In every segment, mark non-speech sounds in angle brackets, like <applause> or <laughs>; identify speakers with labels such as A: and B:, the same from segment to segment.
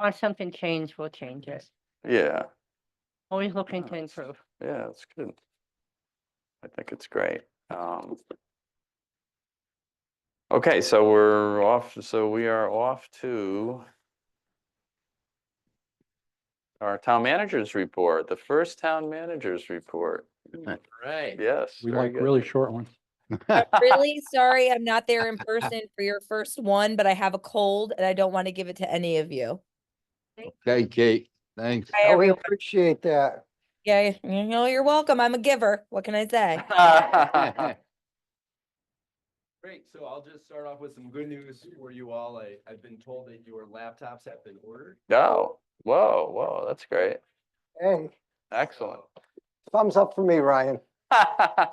A: want something changed, we'll change it.
B: Yeah,
A: Always looking to
B: Nice.
A: improve.
B: yeah, it's good. I think it's great. Um. Okay, so we're off, so we are off to our town manager's report, the first town manager's report.
C: Right.
B: Yes.
D: Hmm. We
B: very
D: like
B: good. <laughs>
D: really short ones.
E: Really sorry, I'm not there in person for your first one, but I have a cold and I don't want to give it to any of you.
D: Okay, Kate, thanks.
E: Bye,
F: Oh, We
E: everyone.
F: appreciate that.
E: Yeah, you know, you're welcome. I'm a giver. What can I say?
C: Great, so I'll just start off with some good news for you all. I, I've been told that your laptops have been ordered.
B: No, whoa, whoa, that's great.
F: Hey,
B: Excellent. <laughs>
C: So,
F: thumbs up for me, Ryan.
C: uh,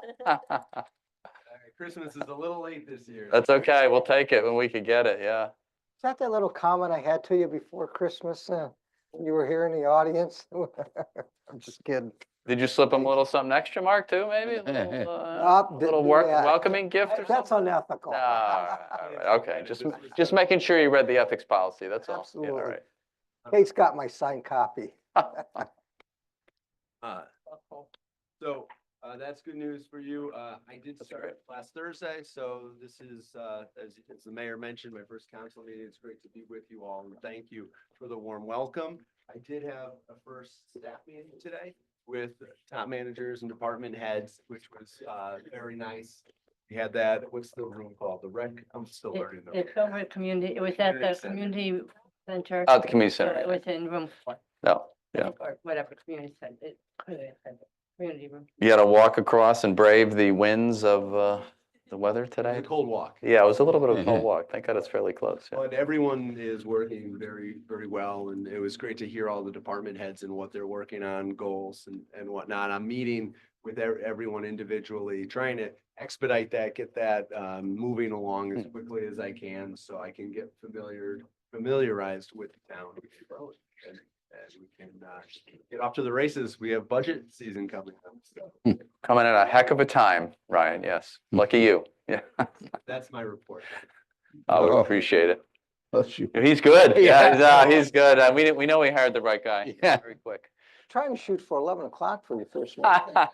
C: Christmas is a little late this year.
B: That's okay. We'll take it when we could get it. Yeah.
F: Is that that little comment I had to you before Christmas? uh, when You were here in the audience? <laughs> I'm just kidding.
B: Did you slip him a little something extra, Mark, too, maybe? A little, uh,
F: Nope, didn't
B: little
F: do
B: work,
F: that.
B: welcoming gift or
F: That's
B: something?
F: unethical.
B: No, all right, all right, Okay, just,
C: This was-
B: just making sure you read the ethics policy. That's all. Yeah, all
F: Absolutely. <laughs> Kate's got my signed copy.
B: right.
C: Uh, So, uh, that's good news for you. Uh, I did start last Thursday, so this is, uh, as, as the mayor mentioned, my first council meeting. It's great to be with you all and thank you for the warm welcome. I did have a first staff meeting today with top managers and department heads, which was, uh, very nice. We had that, what's the room called? The rec, I'm still
A: It-
C: learning. the
A: It's over at community, it was at
C: Community
A: the
C: center.
A: community center.
B: At Oh, the community
A: so
B: center.
A: It was in room four.
B: No,
A: I
B: yeah.
A: think, Or whatever, community center, it, community center, community room.
B: you gotta walk across and brave the winds of, uh, the weather
C: It was a
B: today.
C: cold walk.
B: Yeah, it was a little bit of a cold walk. Thank God it's fairly close. yeah.
C: But everyone is working very, very well, and it was great to hear all the department heads and what they're working on, goals and, and whatnot. I'm meeting with ev- everyone individually, trying to expedite that, get that, um, moving along as quickly as I can, so I can get familiar, familiarized with the town. And and we can, uh, get off to the races. We have budget season coming up, so
B: Coming at a heck of a time, Ryan. Yes. Lucky you. Yeah.
C: that's my report.
B: I would
D: Oh.
B: appreciate it.
D: Bless you.
B: He's good. Yeah,
D: Yeah.
B: no, he's good. Uh, We, didn't- we know we hired the right guy.
D: Yeah.
B: Very quick.
F: Trying to shoot for 11 o'clock for
B: <laughs>
F: your first one.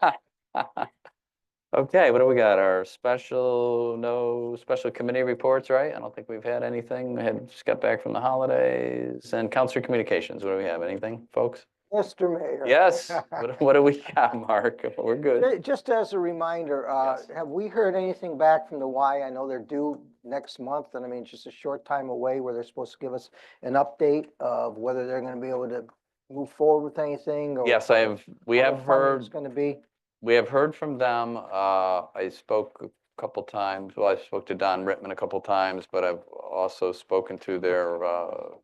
B: Okay, what do we got? Our special, no special committee reports, right? I don't think we've had anything. We had just got back from the holidays and council communications. What do we have? Anything, folks?
F: Mr. Mayor. <laughs>
B: Yes. What- What do we got, Mark? We're good.
F: Ju- Just as a reminder, uh,
B: Yes.
F: have we heard anything back from the Y? I know they're due next month, and I mean, it's just a short time away where they're supposed to give us an update of whether they're gonna be able to move forward with anything or.
B: Yes, I have, we have heard.
F: It's gonna be,
B: We have heard from them. Uh, I spoke a couple times, well, I spoke to Don Rittman a couple times, but I've also spoken to their, uh,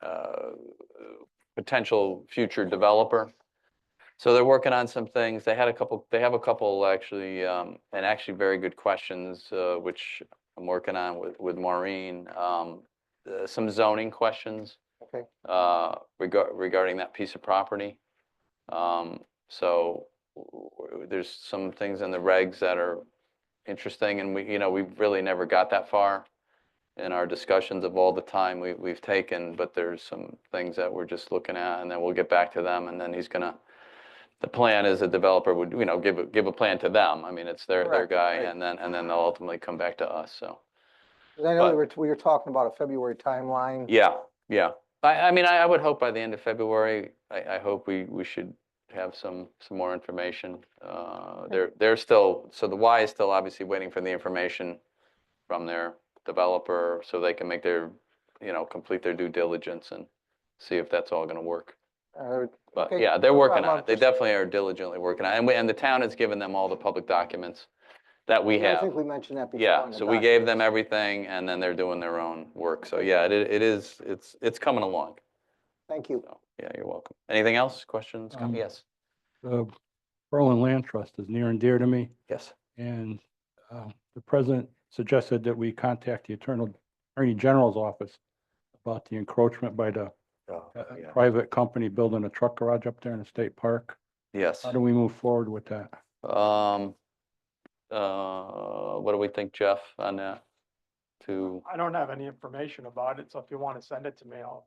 B: uh, potential future developer. So they're working on some things. They had a couple, they have a couple actually, um, and actually very good questions, uh, which I'm working on with, with Maureen. Um, uh, some zoning questions.
F: Okay.
B: Uh, regar- regarding that piece of property. Um, so w- w- there's some things in the regs that are interesting and we, you know, we really never got that far in our discussions of all the time we, we've taken, but there's some things that we're just looking at and then we'll get back to them and then he's gonna, the plan is the developer would, you know, give, a- give a plan to them. I mean, it's their, their
F: Correct,
B: guy
F: right.
B: and then, and then they'll ultimately come back to us, so.
F: 'cause I know
B: But-
F: we were, we were talking about a February timeline.
B: Yeah, yeah. I, I mean, I, I would hope by the end of February, I, I hope we, we should have some, some more information. Uh, they're, they're still, so the Y is still obviously waiting for the information from their developer so they can make their, you know, complete their due diligence and see if that's all gonna work.
F: Uh,
B: But
F: Okay,
B: yeah, they're
F: no
B: working
F: problem.
B: on
F: I'm
B: it. They
F: just-
B: definitely are diligently working on it. And we, and the town has given them all the public documents that we
F: yeah,
B: have.
F: I think we mentioned that before.
B: Yeah,
F: in the
B: so we gave them
F: documents.
B: everything and then they're doing their own work. So yeah, it, i- it is, it's, it's coming along.
F: Thank you.
B: So, yeah, you're welcome. Anything else? Questions? com-
D: Um,
B: Yes,
D: The Berlin Land Trust is near and dear to me,
B: yes.
D: and uh, the president suggested that we contact the Attorney Attorney General's office about the encroachment by the uh, private company building a truck garage up there in the state park.
B: Yes.
D: How do we move forward with that?
B: Um, uh, what do we think, Jeff, on that? To,
G: I don't have any information about it, so if you want to send it to me, I'll